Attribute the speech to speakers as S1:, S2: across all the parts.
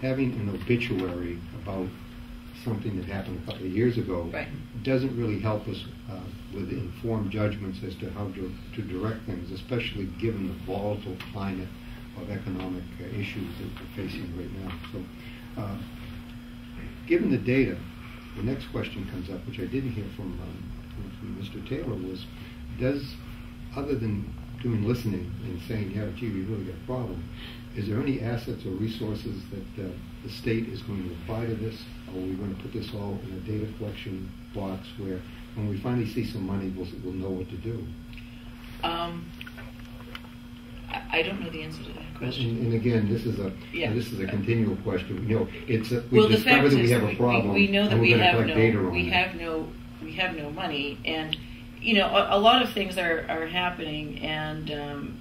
S1: having an obituary about something that happened a couple of years ago
S2: Right.
S1: doesn't really help us uh, with informed judgments as to how to, to direct things, especially given the volatile climate of economic uh, issues that we're facing right now. So, uh, given the data, the next question comes up, which I didn't hear from, um, from Mr. Taylor, was does, other than doing listening and saying, yeah, gee, we really got a problem, is there any assets or resources that uh, the state is going to apply to this? Or are we going to put this all in a data collection box where when we finally see some money, we'll, we'll know what to do?
S2: Um, I, I don't know the answer to that
S1: And,
S2: question.
S1: and again, this is a
S2: Yeah.
S1: this is a continual question. You know, it's a, we
S2: Well, the fact
S1: discover
S2: is,
S1: that we have
S2: we-
S1: a problem.
S2: We know that
S1: and
S2: we
S1: we're gonna
S2: have
S1: collect data
S2: no,
S1: on
S2: we
S1: it.
S2: have no, we have no money, and, you know, a, a lot of things are, are happening, and, um,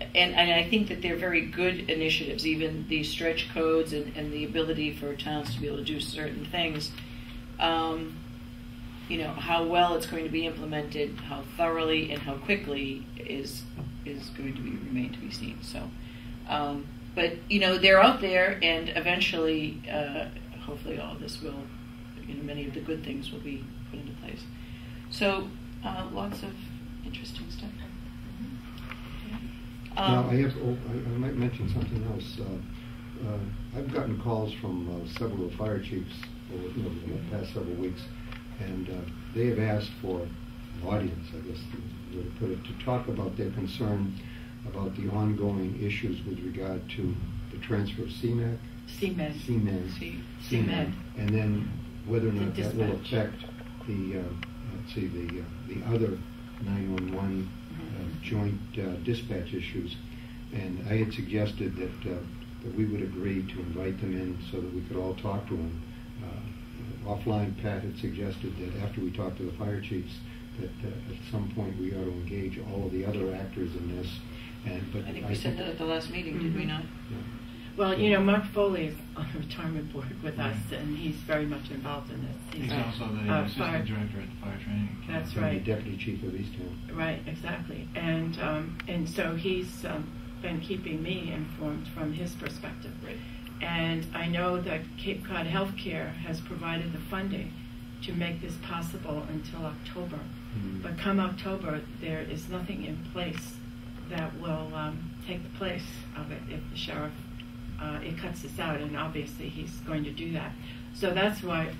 S2: and, and I think that they're very good initiatives, even the stretch codes and, and the ability for towns to be able to do certain things. Um, you know, how well it's going to be implemented, how thoroughly and how quickly is, is going to be, remain to be seen, so. Um, but, you know, they're out there and eventually, uh, hopefully all this will, you know, many of the good things will be put into place. So, uh, lots of interesting stuff.
S1: Now,
S2: Um,
S1: I have, oh, I I might mention something else. Uh, uh, I've gotten calls from uh, several fire chiefs over, you know, in the past several weeks, and uh, they have asked for an audience, I guess, you would put it, to talk about their concern about the ongoing issues with regard to the transfer of CMAC,
S2: CMed.
S1: CMed.
S2: C-
S1: CMed,
S2: CMed.
S1: and then whether or
S2: The
S1: not that will
S2: dispatch.
S1: affect the, uh, let's see, the, uh, the other 911 uh,
S2: Mm-hmm.
S1: joint uh, dispatch issues. And I had suggested that, uh, that we would agree to invite them in so that we could all talk to them. Uh, Offline, Pat had suggested that after we talked to the fire chiefs, that uh, at some point we ought to engage all of the other actors in this. And, but
S2: I think we said that at the last meeting, did we
S1: Mm-hmm.
S3: Mhm.
S2: not?
S1: Yeah.
S3: Well, you know, Mark Foley is on the retirement board with us, and he's very much involved in this.
S4: He's
S2: Right.
S4: also
S3: Uh,
S4: the
S3: fire-
S4: assistant director at the fire training. academy.
S3: That's
S1: And the
S3: right.
S1: Deputy Chief of Eastham.
S3: Right, exactly. And, um, and so he's um, been keeping me informed from his perspective.
S2: Right.
S3: And I know that Cape Cod Healthcare has provided the funding to make this possible until October.
S1: Mhm.
S3: But come October, there is nothing in place that will um, take the place of it if the sheriff, uh, it cuts this out, and obviously he's going to do that. So that's why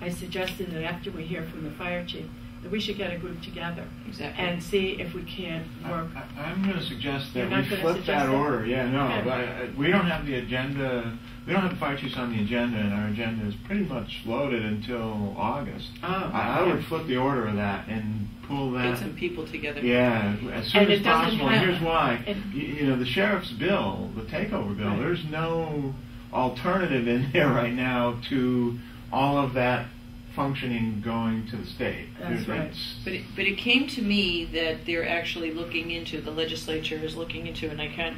S3: I suggested that after we hear from the fire chief, that we should get a group together
S2: Exactly.
S3: and see if we can't
S4: I-
S3: work.
S4: I- I'm going to suggest
S3: You're
S4: that
S3: not
S4: we
S3: gonna
S4: flip
S3: suggest
S4: that
S3: it?
S4: order. Yeah, no,
S3: Okay.
S4: but I- we don't have the agenda, we don't have the fire chiefs on the agenda, and our agenda is pretty much loaded until August.
S3: Oh,
S4: I I
S3: okay.
S4: would flip the order of that and pull that.
S2: Get some people together.
S4: Yeah, as soon
S3: And
S4: as
S3: it doesn't
S4: possible.
S3: have-
S4: and here's why.
S3: it-
S4: you, you know, the sheriff's bill, the takeover bill.
S3: Right.
S4: There's no alternative in there right now to all of that functioning going to the state.
S3: That's
S4: There's-
S3: right.
S4: it's-
S2: But it, but it came to me that they're actually looking into the legislature is looking into, and I can't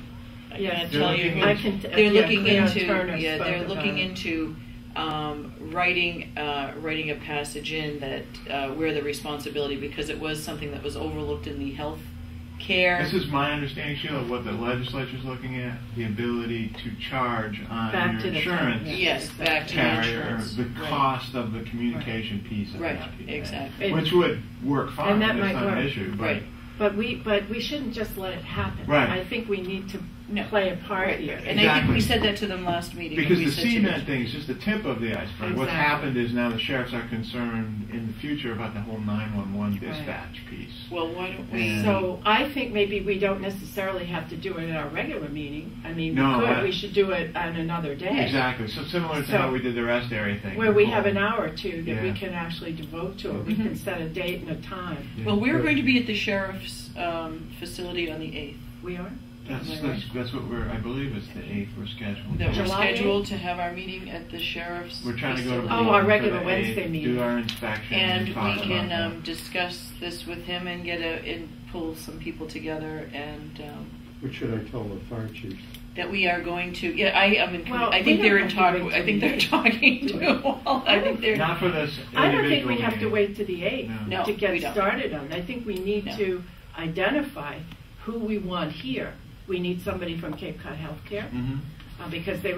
S2: I
S3: Yes.
S2: can't
S4: They're
S2: tell you.
S4: looking
S2: who-
S3: I can t-
S2: they're
S3: yeah,
S2: looking
S3: Cleo
S2: into
S3: Turner
S2: yeah
S3: spoke
S2: they're
S3: about
S2: looking
S3: it.
S2: into um, writing uh, writing a passage in that uh, where the responsibility because it was something that was overlooked in the health care.
S4: This is my understanding, Sheila, of what the legislature's looking at, the ability to charge on
S3: Back
S4: your
S3: to the
S4: insurance
S3: yeah,
S2: Yes,
S3: exactly.
S2: back to the
S4: carrier
S2: insurance.
S4: the
S2: Right.
S4: cost of the communication piece of
S2: Right,
S4: that. piece.
S2: exactly.
S4: Which would work fine,
S3: And that
S4: it's
S3: might
S4: not an
S3: work.
S4: issue, but
S2: Right.
S3: But we, but we shouldn't just let it happen.
S4: Right.
S3: I think we need to
S2: No.
S3: play a part
S2: Right.
S3: here.
S2: And I think we
S4: Exactly.
S2: said that to them last meeting.
S4: Because
S2: we
S4: the
S2: said to
S4: cement
S2: them-
S4: thing is just the tip of the iceberg. What's
S3: Exactly.
S4: happened is now the sheriffs are concerned in the future about the whole 911
S3: Right.
S4: dispatch piece.
S2: Well, why don't we?
S4: Yeah.
S3: So I think maybe we don't necessarily have to do it at our regular meeting. I mean,
S4: No,
S3: we could,
S4: I-
S3: we should do it on another day.
S4: Exactly. So similar to
S3: So-
S4: how we did the rest area thing.
S3: Where we have
S4: Well,
S3: an hour or two that we
S4: Yeah.
S3: can actually devote to it. We
S2: Mhm.
S3: can set a date and a time.
S4: yeah.
S2: Well, we're going to be at the sheriff's um, facility on the eighth.
S3: We are?
S4: That's, that's, that's what we're, I believe it's the 8th we're scheduled.
S2: That we're
S3: July
S2: scheduled to have our meeting at the sheriff's.
S4: We're trying to go to.
S2: facility.
S3: Oh,
S4: Bolton
S3: our
S4: for
S3: regular
S4: the
S3: Wednesday
S4: 8th,
S3: meeting.
S4: Do our inspection.
S2: And
S4: talk
S2: we
S4: about
S2: can
S4: that.
S2: um, discuss this with him and get a, and pull some people together and, um,
S1: What should I tell the fire chiefs?
S2: that we are going to, yeah, I, I'm in,
S3: Well,
S2: I
S3: we
S2: think
S3: don't
S2: they're in
S3: have to
S2: talk,
S3: wait
S2: I think
S3: till
S2: they're
S3: the-
S2: talking to all, I think they're.
S4: Not for this
S3: I don't think we
S4: individual
S3: have to
S4: meeting.
S3: wait to the 8th
S4: No.
S3: to
S2: No, we
S3: get
S2: don't.
S3: started on. it. I think we need
S2: No.
S3: to identify who we want here. We need somebody from Cape Cod Healthcare
S4: Mhm.
S3: uh, because they